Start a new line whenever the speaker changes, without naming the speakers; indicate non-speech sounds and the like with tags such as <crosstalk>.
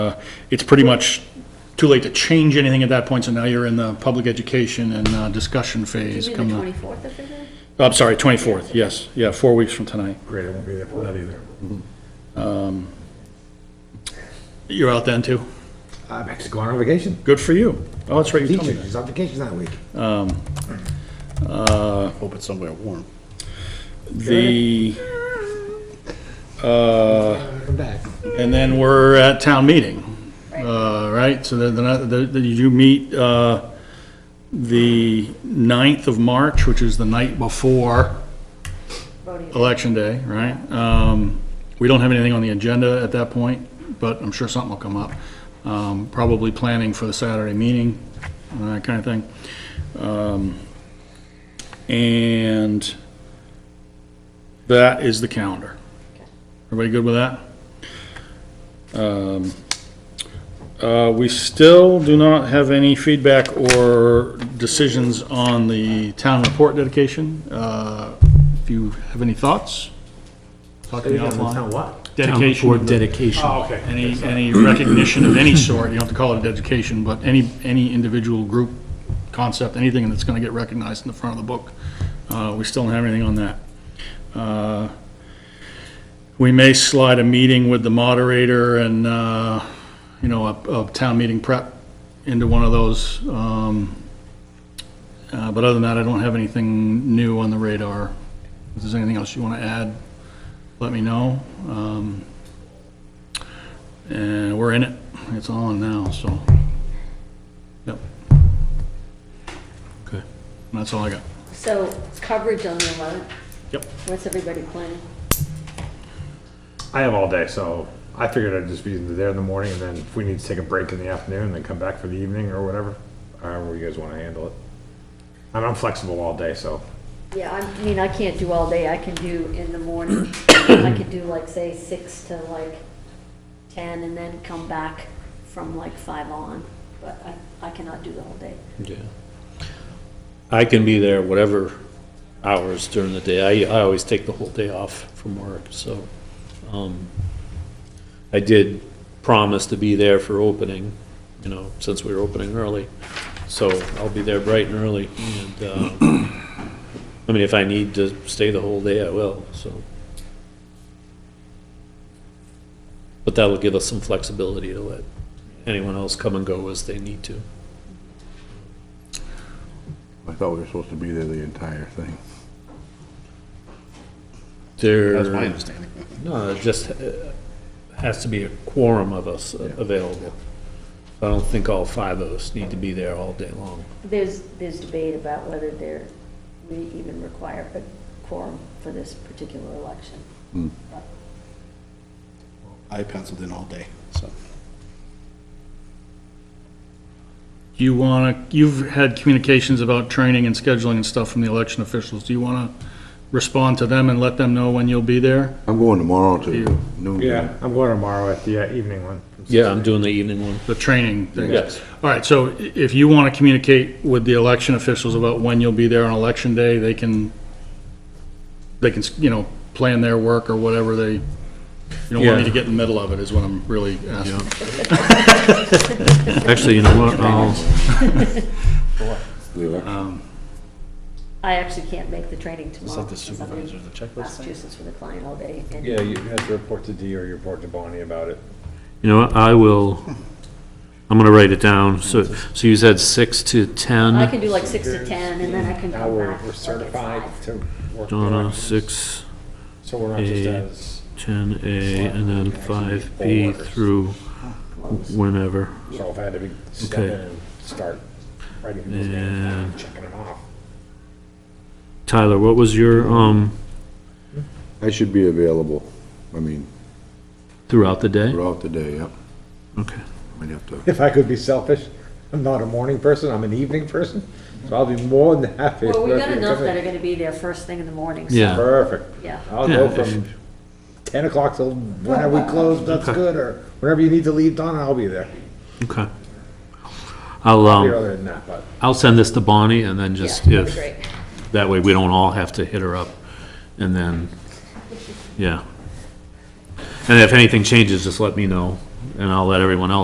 uh, it's pretty much too late to change anything at that point, so now you're in the public education and uh, discussion phase.
Maybe the
come the-
24th of February?
I'm sorry, 24th, yes, yeah, four weeks from tonight.
Great, I won't be there for that either.
You're out then, too?
I'm actually going Uh, on vacation.
Good for you. Oh, that's right, you told me
Teacher,
that.
he's on vacation that week.
Hope it's somewhere warm.
Uh, The,
Come back.
and then we're at town meeting, uh, right? So then, then the- the- you meet uh, the 9th of March, which is the night before Election Day, right? Um, We don't have anything on the agenda at that point, but I'm sure something will come up. Um, Probably planning for the Saturday meeting, uh, that kind of thing. Um, And that is the calendar. Everybody good with that? Uh, We still do not have any feedback or decisions on the town report dedication. Uh, If you have any thoughts? talk to me offline.
what?
Dedication.
Or dedication.
Oh, okay.
Any, any recognition of any sort, you don't have to call it dedication, but any, any individual group concept, anything that's gonna get recognized in the front of the book. Uh, we still don't have anything on that. Uh, We may slide a meeting with the moderator and, uh, you know, a, a town meeting prep into one of those. um, uh, but other than that, I don't have anything new on the radar. If there's anything else you wanna add, let me know. Um, and we're in it. It's on now, so. Yep. Okay. And That's all I got.
So coverage on the 11th,
Yep.
what's everybody planning?
I have all day, so I figured I'd just be there in the morning, and then if we need to take a break in the afternoon, then come back for the evening or whatever, however you guys want to handle it. I'm, I'm flexible all day, so
Yeah, I mean, I can't do all day, I can do in the morning. <coughs> I could do like, say, 6 to like 10, and then come back from like 5 on, but I I cannot do the whole day.
Yeah. I can be there whatever hours during the day. I, I always take the whole day off from work, so. um, I did promise to be there for opening, you know, since we were opening early. So I'll be there bright and early, and, um, I mean, if I need to stay the whole day, I will, so. But that'll give us some flexibility to let anyone else come and go as they need to.
I thought we were supposed to be there the entire thing.
There.
That's my understanding.
No, it just uh, has to be a quorum of us available. I don't think all five of us need to be there all day long.
There's, there's debate about whether there, we even require a quorum for this particular election.
I penciled in all day, so.
You wanna, you've had communications about training and scheduling and stuff from the election officials. Do you wanna respond to them and let them know when you'll be there?
I'm going tomorrow to
You.
noon.
yeah, I'm going tomorrow at the uh, evening one.
Yeah, I'm doing the evening one.
The training thing?
Yes.
All right, so i- if you wanna communicate with the election officials about when you'll be there on election day, they can, they can, you know, plan their work or whatever they, you don't want me
Yeah.
to get in the middle of it, is what I'm really asking.
<laughs> Actually, you know what, I'll,
<laughs>
I actually can't make the training tomorrow.
that the
'cause I'm in
supervisor, the checklist thing?
Massachusetts with a client all day, and
Yeah, you have to report to Dee or you report to Bonnie about it.
you know what, I will, I'm gonna write it down. So, so you said six to
I
10,
can do like six to ten, and then I can
Now
come
we're,
back.
we're
like at
certified
five.
to work. the
Donna,
elections,
6,
So we're not just
eight,
as,
10A, and then 5B through whenever.
so if I had to be, step in
Okay.
and start writing people's names, down, checking them off.
Tyler, what was your, um,
I should be available, I mean,
throughout the day?
throughout the day, yep.
Okay.
Might have
<laughs>
to,
If I could be selfish, I'm not a morning person, I'm an evening person, so I'll be more than happy.
Well, we've
if
got
you
enough
come
that are
in.
gonna be there first thing in the morning. so-
Yeah.
Perfect.
Yeah.
I'll go
Yeah, if-
from ten o'clock till whenever we close, that's
Okay.
good, or whenever you need to leave, Donna, I'll be there.
Okay. I'll,
Be
um,
earlier than that, but
I'll send this to Bonnie and then just,
Yeah, that'd be
if,
great.
that way we don't all have to hit her up. And then, yeah. And if anything changes, just let me know. and I'll let everyone else